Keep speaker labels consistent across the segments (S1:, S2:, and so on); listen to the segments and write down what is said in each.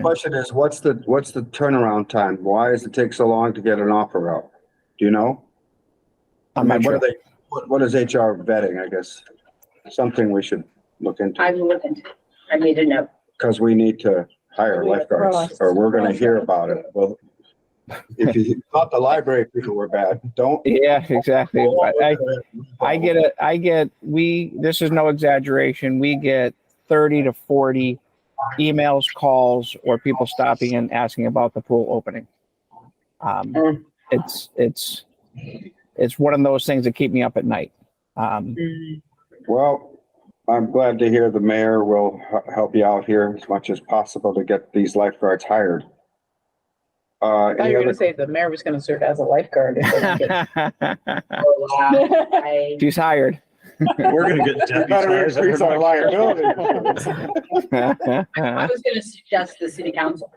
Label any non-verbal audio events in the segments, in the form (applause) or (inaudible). S1: Question is, what's the, what's the turnaround time? Why does it take so long to get an offer out? Do you know? I
S2: I'm
S1: mean,
S2: not
S1: what are
S2: sure.
S1: they, what, what is HR vetting, I guess? Something we should look into,
S3: I'm looking. I need to know.
S1: because we need to hire lifeguards, or we're gonna hear about it. Well, if you thought the library people were bad, don't.
S2: Yeah, exactly. But (laughs) I, I get it. I get, we, this is no exaggeration. We get 30 to 40 emails, calls, or people stopping and asking about the pool opening.
S1: Mm.
S2: Um, it's, it's, it's one of those things that keep me up at night.
S1: (laughs)
S2: Um,
S3: Mm.
S1: Well, I'm glad to hear the mayor will h- help you out here as much as possible to get these lifeguards hired. Uh,
S4: I thought
S1: any
S4: you were gonna
S1: other,
S4: say the mayor was gonna serve as a lifeguard. or something.
S3: Oh, (laughs) wow. I-
S2: she's hired. (laughs)
S5: We're gonna
S1: (laughs)
S5: get
S1: better
S5: deputized.
S1: increase our liability.
S3: I was gonna suggest the city council.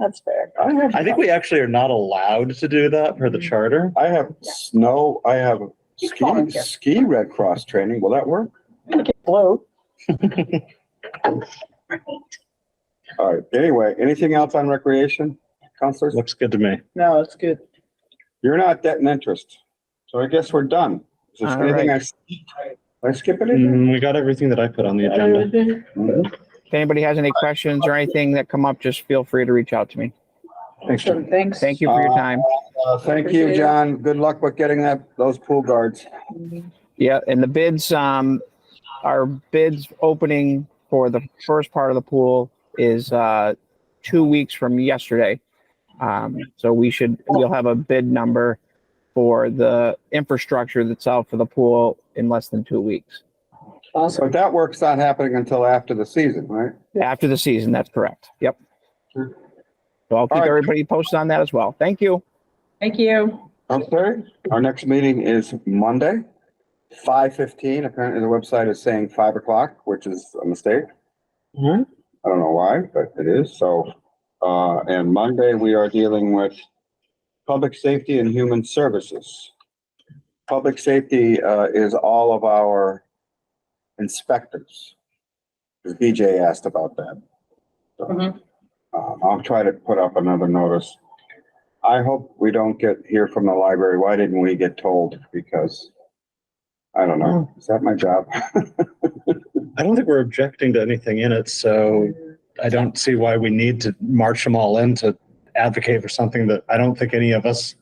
S4: That's fair.
S1: I have,
S5: I think we actually are not allowed to do that per the charter.
S1: I have snow, I have
S4: Just
S1: ski,
S4: volunteer.
S1: ski Red Cross training. Will that work?
S4: Bloat.
S1: (laughs) All right. Anyway, anything else on recreation, counselors?
S5: Looks good to me.
S4: No, it's good.
S1: You're not debt and interest. So I guess we're done. Is there
S2: All
S1: anything I, skipped? Did I skip anything?
S5: Mm, We got everything that I put on the agenda.
S1: Mhm.
S2: If anybody has any questions or anything that come up, just feel free to reach out to me.
S5: Thanks, Jim.
S4: Awesome, Thanks.
S2: Thank you for your time.
S1: Uh, Thank
S4: Appreciate
S1: you,
S4: it.
S1: John. Good luck with getting that, those pool guards.
S2: Yeah, and the bids, um, our bids opening for the first part of the pool is, uh, two weeks from yesterday. Um, so we should, we'll have a bid number for the infrastructure that's out for the pool in less than two weeks.
S4: Awesome.
S1: But that work's not happening until after the season, right?
S2: After the season, that's correct. Yep.
S1: Sure.
S2: So I'll
S1: All
S2: keep
S1: right.
S2: everybody posted on that as well. Thank you.
S4: Thank you.
S1: I'm sorry? Our next meeting is Monday, five fifteen. Apparently the website is saying five o'clock, which is a mistake.
S5: Mhm.
S1: I don't know why, but it is. So, uh, and Monday, we are dealing with public safety and human services. Public safety, uh, is all of our inspectors. 'Cause BJ asked about that. So,
S4: Mhm.
S1: Um, I'll try to put up another notice. I hope we don't get, hear from the library. Why didn't we get told? Because I don't know. Is that my job?
S5: I don't think we're objecting to anything in it, so I don't see why we need to march them all in to advocate for something that I don't think any of us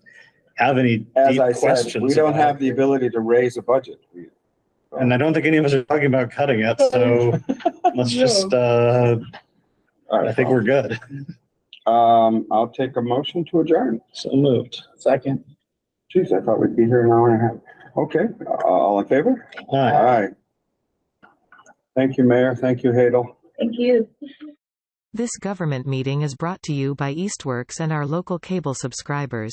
S5: have any
S1: As
S5: deep
S1: I said,
S5: questions.
S1: we don't
S5: about.
S1: have the ability to raise a budget.
S5: And I don't think any of us are talking about cutting it,
S1: (laughs)
S5: so let's just, uh,
S1: All right,
S5: I think we're good.
S1: Um, I'll take a motion to adjourn.
S5: So moved.
S4: Second.
S1: Jeez, I thought we'd be here an hour and a half. Okay, uh, all in favor? All
S5: Aye.
S1: right. Thank you, Mayor. Thank you, Hadel.
S3: Thank you.
S6: This government meeting is brought to you by Eastworks and our local cable subscribers.